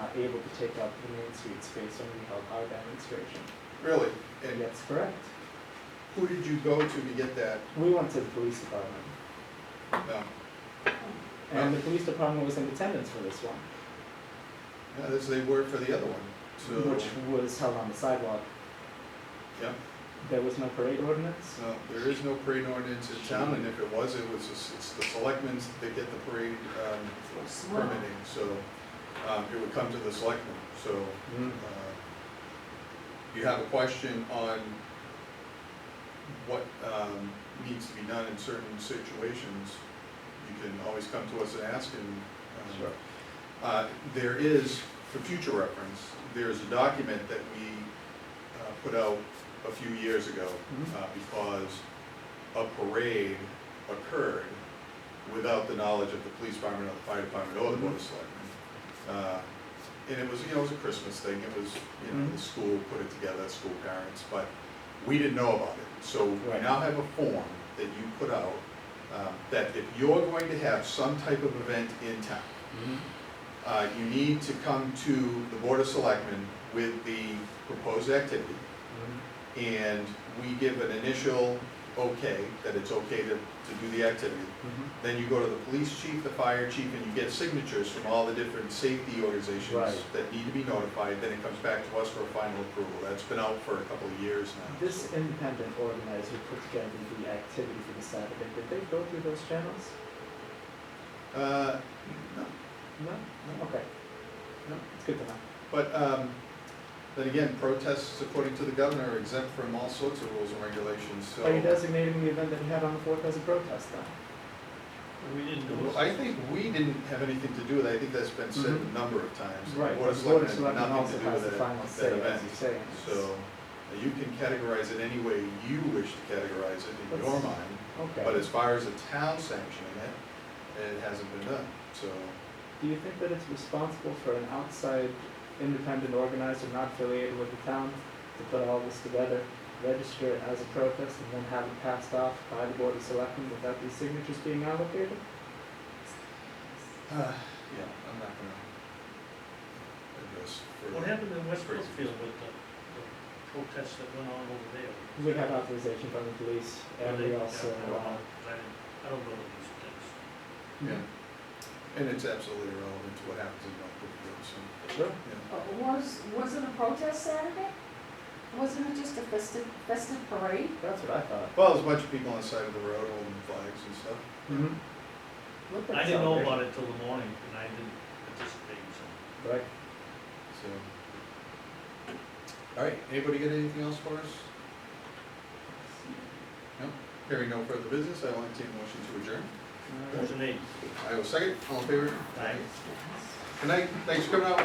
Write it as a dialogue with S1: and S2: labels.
S1: not able to take up the Main Street space when we held our demonstration.
S2: Really? And
S1: That's correct.
S2: who did you go to to get that? um,
S1: We went to the police department,
S2: No,
S1: and the police department was in attendance for this one,
S2: no, as they were for the other one, so,
S1: which was held on the sidewalk.
S2: yeah.
S1: There was no parade ordinance.
S2: So there is no parade ordinance in town, and if it was, it was, just- it's the selectmen that get the parade um, permitting, so um, it would come to the selectmen. So
S1: Mm-hmm.
S2: uh, you have a question on what um, needs to be done in certain situations, you can always come to us and ask, and um,
S1: Sure.
S2: uh, There is, for future reference, there is a document that we uh, put out a few years ago
S1: Mhm.
S2: uh, because a parade occurred without the knowledge of the police department, or the fire department, or the board of selectmen. Uh, And it was, you know, it was a Christmas thing, it was, you know, the school put it together, school parents, but we didn't know about it. So we
S1: Right.
S2: now have a form that you put out, um, that if you're going to have some type of event in town,
S1: Mm-hmm.
S2: uh, you need to come to the Board of Selectmen with the proposed activity, and we give an initial okay, that it's okay to, to do the activity.
S1: Mm-hmm.
S2: Then you go to the police chief, the fire chief, and you get signatures from all the different safety organizations
S1: Right.
S2: that need to be notified, then it comes back to us for a final approval. That's been out for a couple of years now.
S1: This independent organizer put together the activity for the Saturday. Did they go through those channels?
S2: Uh, no,
S1: No?
S2: no,
S1: Okay.
S2: no.
S1: It's good to know.
S2: But, um, then again, protests, according to the governor, are exempt from all sorts of rules and regulations, so.
S1: Are you designating the event that we had on the fourth as a protest then?
S3: We didn't do
S2: Well,
S3: it.
S2: I think we didn't have anything to do with it, I think that's been said
S1: Mhm.
S2: a number of times.
S1: Right,
S2: Board of
S1: the Board of
S2: Selectmen
S1: Selectmen
S2: had nothing
S1: also
S2: to do
S1: has the
S2: with that,
S1: final
S2: that
S1: say, as
S2: event.
S1: you say.
S2: So, uh, you can categorize it any way you wish to categorize it in your
S1: That's-
S2: mind,
S1: Okay.
S2: but as far as the town sanctioning it, it hasn't been done, so.
S1: Do you think that it's responsible for an outside independent organizer not affiliated with the town to put all this together, register it as a protest, and then have it passed off by the Board of Selectmen without these signatures being allocated?
S2: uh, Yeah, I'm not gonna address for.
S3: What happened in West Brookfield with the the protests that went on over there?
S1: We had authorization from the police, and
S3: Were
S1: we
S3: they-
S1: also,
S3: I don't
S1: uh,
S3: know. I didn't- I don't know these things.
S2: Yeah, and it's absolutely irrelevant to what happens in North Brookfield, so,
S1: sure,
S2: yeah.
S4: But Was, wasn't a protest Saturday? Wasn't it just a festive, festive parade?
S1: that's what I thought.
S2: Well, there's a bunch of people on the side of the road holding flags and stuff.
S1: Mm-hmm.
S4: Look
S3: I
S4: at
S3: didn't know
S4: Saturday.
S3: about it till the morning, and I didn't participate, so.
S1: Right.
S2: So. All right, anybody got anything else for us? No? Hearing no further business, I will entertain a motion to adjourn.
S1: All right.
S3: Motion made.
S2: I will second, all in favor?
S3: Aye.
S2: Good night, thanks for coming out.